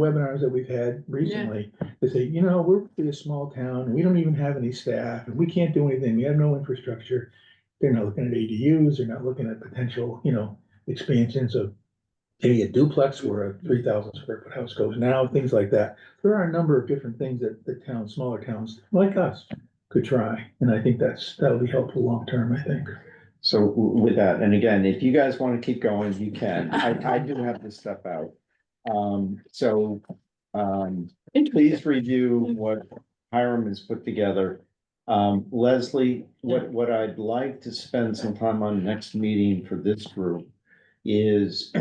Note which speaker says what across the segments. Speaker 1: webinars that we've had recently, they say, you know, we're pretty a small town, and we don't even have any staff, and we can't do anything, we have no infrastructure. They're not looking at ADUs, they're not looking at potential, you know, expansions of maybe a duplex where a three thousand square foot house goes now, things like that. There are a number of different things that the town, smaller towns like us could try, and I think that's, that'll be helpful long term, I think.
Speaker 2: So w- with that, and again, if you guys want to keep going, you can. I, I do have this stuff out. Um, so, um, please review
Speaker 3: Hmm.
Speaker 2: what Hiram has put together. Um, Leslie, what, what I'd like to spend some time on next meeting for this group is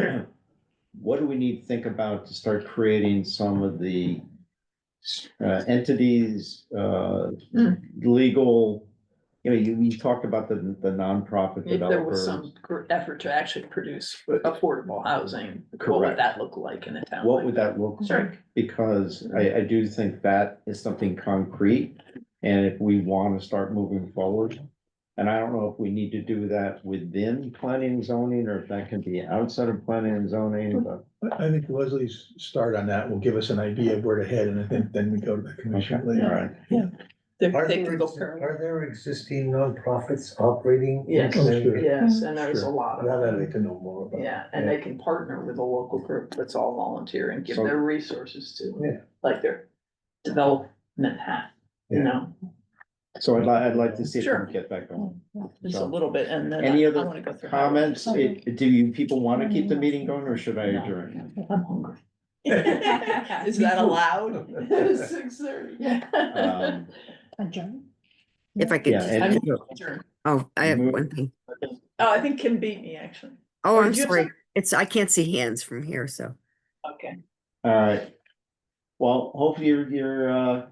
Speaker 2: what do we need to think about to start creating some of the uh, entities, uh,
Speaker 3: Hmm.
Speaker 2: legal, you know, you, you talked about the, the nonprofit
Speaker 3: If there was
Speaker 2: developers.
Speaker 3: some gr- effort to actually produce affordable housing, what
Speaker 2: Correct.
Speaker 3: would that look like in a town?
Speaker 2: What
Speaker 3: like
Speaker 2: would that look
Speaker 3: Sure.
Speaker 2: like? Because I, I do think that is something concrete. And if we want to start moving forward, and I don't know if we need to do that within planning and zoning or if that can be outside of planning and zoning, but.
Speaker 1: I, I think Leslie's start on that will give us an idea of where to head, and I think then we go to the commission
Speaker 2: Okay,
Speaker 1: later.
Speaker 2: all right.
Speaker 3: They
Speaker 4: Are
Speaker 3: they
Speaker 4: there
Speaker 3: can go
Speaker 4: exi-
Speaker 3: permanent.
Speaker 4: Are there existing nonprofits operating? in
Speaker 3: Yes.
Speaker 1: Oh, sure.
Speaker 4: Connecticut?
Speaker 3: Yes, and there's a
Speaker 1: Sure.
Speaker 3: lot
Speaker 4: Now
Speaker 3: of
Speaker 4: that I
Speaker 3: them.
Speaker 4: need to know more about.
Speaker 3: Yeah, and they can partner with a local group that's all volunteer and give
Speaker 2: So-
Speaker 3: their resources to.
Speaker 4: Yeah.
Speaker 3: Like their development hat, you
Speaker 4: Yeah.
Speaker 3: know,
Speaker 2: So I'd like, I'd like to see if we
Speaker 3: Sure.
Speaker 2: can get that going.
Speaker 3: just a
Speaker 2: So-
Speaker 3: little bit and then.
Speaker 2: Any
Speaker 3: I- I
Speaker 2: other
Speaker 3: wanna go through how-
Speaker 2: Comments, It- do you people want to keep the meeting going or should I
Speaker 3: No.
Speaker 2: adjourn?
Speaker 3: I'm hungry. Is that allowed? Six thirty, yeah.
Speaker 2: Um,
Speaker 5: Adjourn?
Speaker 6: If I could,
Speaker 2: Yeah,
Speaker 6: just-
Speaker 2: and,
Speaker 3: Adjourn.
Speaker 6: oh, I have
Speaker 2: Move-
Speaker 6: one thing.
Speaker 3: Oh, I think Kim beat me, actually.
Speaker 6: Oh,
Speaker 3: or
Speaker 6: I'm
Speaker 3: do you have
Speaker 6: sorry.
Speaker 3: some-
Speaker 6: It's, I can't see hands from here, so.
Speaker 3: Okay.
Speaker 2: all right. Well, hopefully you're, you're, uh,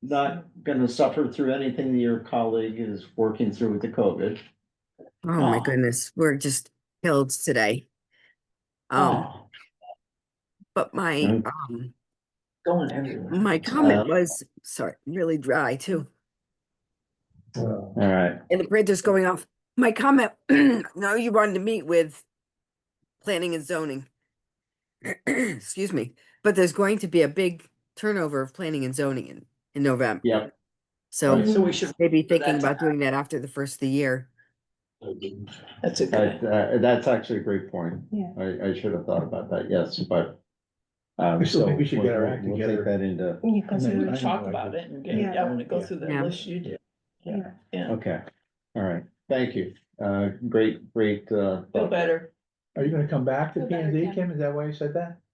Speaker 2: not gonna suffer through anything that your colleague is working through with the COVID.
Speaker 6: Oh my
Speaker 3: Oh.
Speaker 6: goodness, we're just killed today. Um,
Speaker 3: Oh,
Speaker 6: but my,
Speaker 2: Mm.
Speaker 6: um,
Speaker 3: Going everywhere.
Speaker 6: my
Speaker 2: Uh,
Speaker 6: comment was, sorry, really dry too.
Speaker 4: Uh,
Speaker 2: All right,
Speaker 6: And the printer's going off. My comment, no, you wanted to meet with planning and zoning. Excuse me, but there's going to be a big turnover of planning and zoning in, in November.
Speaker 2: yep.
Speaker 6: So
Speaker 3: So we should,
Speaker 6: maybe
Speaker 3: for that
Speaker 6: thinking
Speaker 3: to
Speaker 6: about doing that after the first of the year.
Speaker 3: that's a
Speaker 2: That,
Speaker 3: good,
Speaker 2: uh, that's actually a great point.
Speaker 5: Yeah.
Speaker 2: I, I should have thought about that, yes, but. um,
Speaker 1: I still think we should get our act together.
Speaker 2: That into,
Speaker 5: Because
Speaker 1: And then-
Speaker 3: we
Speaker 5: we,
Speaker 3: would talk about it and get,
Speaker 5: Yeah.
Speaker 3: I wanna go through the
Speaker 6: Yeah.
Speaker 3: list you did.
Speaker 5: yeah.
Speaker 3: Yeah,
Speaker 2: okay, all right, thank you, uh, great, great, uh.
Speaker 3: feel better.
Speaker 1: Are you gonna come back to
Speaker 5: Feel
Speaker 1: P
Speaker 5: better,
Speaker 1: and Z,
Speaker 5: Kim.
Speaker 1: Kim? Is that why you said that?